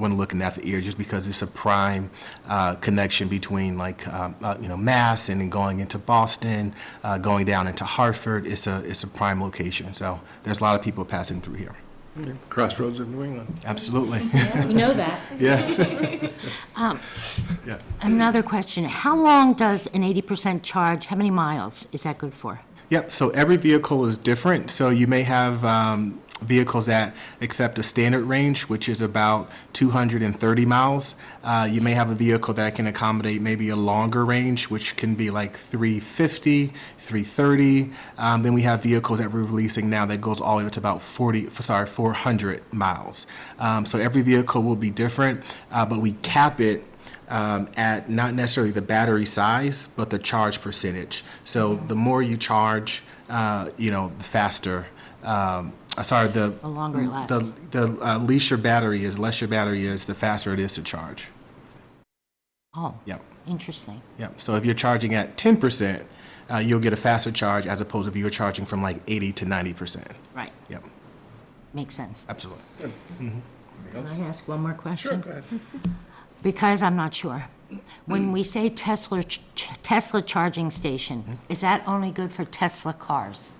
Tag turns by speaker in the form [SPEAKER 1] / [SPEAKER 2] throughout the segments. [SPEAKER 1] when looking at the ear, just because it's a prime uh, connection between like, um, uh, you know, Mass and then going into Boston, uh, going down into Hartford. It's a, it's a prime location. So there's a lot of people passing through here.
[SPEAKER 2] Crossroads of New England.
[SPEAKER 1] Absolutely.
[SPEAKER 3] We know that.
[SPEAKER 1] Yes. Yeah.
[SPEAKER 4] Um, Another question, how long does an 80% charge, how many miles is that good for?
[SPEAKER 1] Yep, so every vehicle is different. So you may have um, vehicles that accept a standard range, which is about 230 miles. Uh, You may have a vehicle that can accommodate maybe a longer range, which can be like 350, 330. Um, Then we have vehicles that we're releasing now that goes all the way up to about 40, f- sorry, 400 miles. Um, So every vehicle will be different, uh, but we cap it um, at not necessarily the battery size, but the charge percentage. So the more you charge, uh, you know, the faster. Um, uh, sorry, the
[SPEAKER 4] The longer it lasts.
[SPEAKER 1] The, the uh, least your battery is, less your battery is, the faster it is to charge.
[SPEAKER 4] Oh,
[SPEAKER 1] Yep,
[SPEAKER 4] interesting.
[SPEAKER 1] yep. So if you're charging at 10%, uh, you'll get a faster charge as opposed if you were charging from like 80 to 90%.
[SPEAKER 4] Right,
[SPEAKER 1] Yep,
[SPEAKER 4] makes sense.
[SPEAKER 1] absolutely.
[SPEAKER 4] Can I ask one more question?
[SPEAKER 2] ahead.
[SPEAKER 4] Because I'm not sure.
[SPEAKER 1] Mm.
[SPEAKER 4] When we say Tesla, ch- Tesla charging station,
[SPEAKER 1] Mm-hmm.
[SPEAKER 4] is that only good for Tesla cars?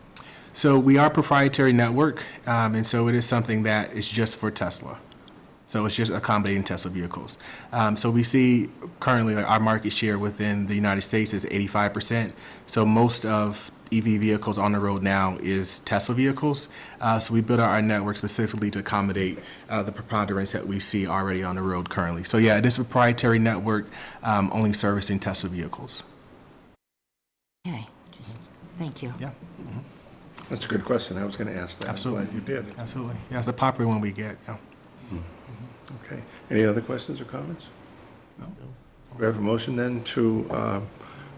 [SPEAKER 1] So we are proprietary network, um, and so it is something that is just for Tesla. So it's just accommodating Tesla vehicles. Um, so we see currently like, our market share within the United States is 85%. So most of EV vehicles on the road now is Tesla vehicles. Uh, so we built out our network specifically to accommodate uh, the preponderance that we see already on the road currently. So yeah, it is a proprietary network um, only servicing Tesla vehicles.
[SPEAKER 4] Okay, just, thank you.
[SPEAKER 1] Yeah,
[SPEAKER 2] That's a good question. I was going to ask that. I'm
[SPEAKER 1] Absolutely.
[SPEAKER 2] Glad you did.
[SPEAKER 1] absolutely. Yeah, it's a popular one we get. Yeah.
[SPEAKER 2] Okay. Any other questions or comments? No. We have a motion then to uh,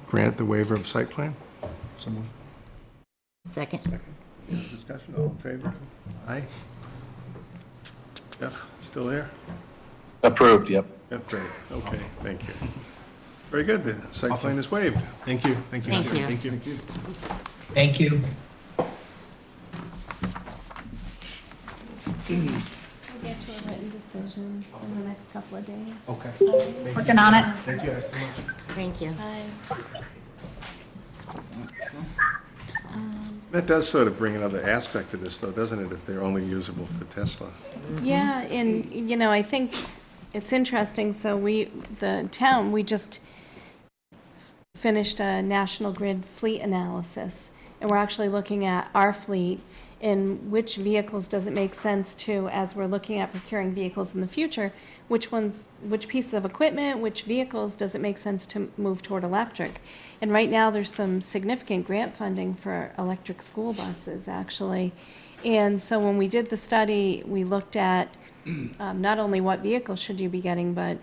[SPEAKER 2] grant the waiver of site plan?
[SPEAKER 4] Second,
[SPEAKER 2] Any Discussion, all in favor? Aye. Jeff, still there?
[SPEAKER 5] Approved, yep.
[SPEAKER 2] Jeff, great. Okay, thank you. Very good. The site plan is waived.
[SPEAKER 1] Thank you. Thank you.
[SPEAKER 4] Thank
[SPEAKER 1] Nancy.
[SPEAKER 4] you.
[SPEAKER 1] Thank you.
[SPEAKER 6] Thank you.
[SPEAKER 7] We'll get you a written decision in the next couple of days.
[SPEAKER 1] Okay.
[SPEAKER 8] Working on it.
[SPEAKER 1] Thank you guys so much.
[SPEAKER 4] thank you.
[SPEAKER 7] Bye.
[SPEAKER 2] That does sort of bring another aspect to this, though, doesn't it, if they're only usable for Tesla?
[SPEAKER 7] Yeah, and, you know, I think it's interesting, so we, the town, we just finished a National Grid fleet analysis, and we're actually looking at our fleet and which vehicles does it make sense to, as we're looking at procuring vehicles in the future, which ones, which pieces of equipment, which vehicles does it make sense to move toward electric? And right now, there's some significant grant funding for electric school buses, actually. And so when we did the study, we looked at um, not only what vehicle should you be getting, but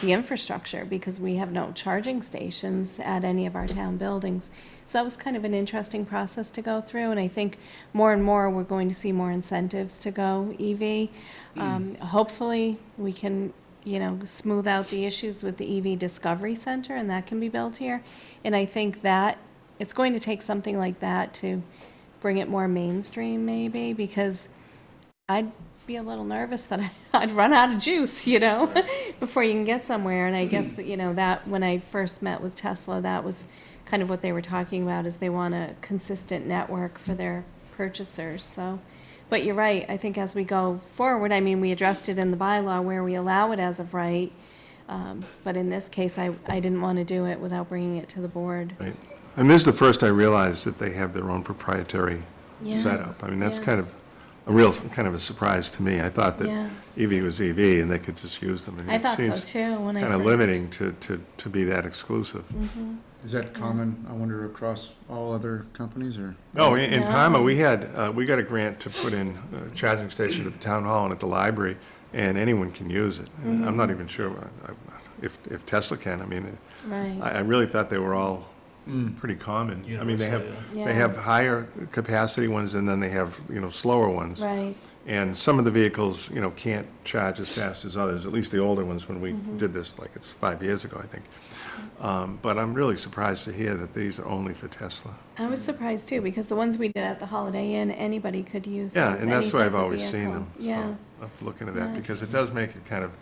[SPEAKER 7] the infrastructure, because we have no charging stations at any of our town buildings. So that was kind of an interesting process to go through, and I think more and more, we're going to see more incentives to go EV. Um, Hopefully, we can, you know, smooth out the issues with the EV Discovery Center, and that can be built here. And I think that, it's going to take something like that to bring it more mainstream, maybe, because I'd be a little nervous that I- I'd run out of juice, you know, before you can get somewhere. And I guess that, you know, that when I first met with Tesla, that was kind of what they were talking about is they want a consistent network for their purchasers. So, but you're right. I think as we go forward, I mean, we addressed it in the bylaw where we allow it as of right. Um, but in this case, I, I didn't want to do it without bringing it to the board.
[SPEAKER 2] Right. And this is the first I realized that they have their own proprietary
[SPEAKER 7] Yes,
[SPEAKER 2] setup. I mean, that's kind
[SPEAKER 7] yes.
[SPEAKER 2] of a real, kind of a surprise to me. I thought that
[SPEAKER 7] Yeah.
[SPEAKER 2] EV was EV and they could just use them.
[SPEAKER 7] I thought so too when I
[SPEAKER 2] Kind of
[SPEAKER 7] first- Mm-hmm.
[SPEAKER 2] limiting to, to, to be that exclusive.
[SPEAKER 9] Is that common, I wonder, across all other companies, or?
[SPEAKER 2] No, Oh, in in
[SPEAKER 7] No.
[SPEAKER 2] Palmer, we had, uh, we got a grant to put in a charging station at the town hall and at the library, and anyone can use it. And
[SPEAKER 7] Mm-hmm.
[SPEAKER 2] I'm not even sure uh, if, if Tesla can, I mean,
[SPEAKER 7] Right.
[SPEAKER 2] I, I really thought they were all pretty common. I mean, they have,
[SPEAKER 7] yeah.
[SPEAKER 2] they
[SPEAKER 7] Yeah.
[SPEAKER 2] have higher capacity ones, and then they have, you know, slower ones.
[SPEAKER 7] Right.
[SPEAKER 2] And some of the vehicles, you know, can't charge as fast as others, at least the older ones when we
[SPEAKER 7] Mm-hmm.
[SPEAKER 2] did this, like it's five years ago, I think. Um, But I'm really surprised to hear that these are only for Tesla.
[SPEAKER 7] I was surprised too, because the ones we did at the Holiday Inn, anybody could use those.
[SPEAKER 2] Yeah, and that's
[SPEAKER 7] any
[SPEAKER 2] why
[SPEAKER 7] type
[SPEAKER 2] I've
[SPEAKER 7] of
[SPEAKER 2] always seen
[SPEAKER 7] vehicle.
[SPEAKER 2] them. so
[SPEAKER 7] Yeah.
[SPEAKER 2] I'm looking at that because it does make it kind of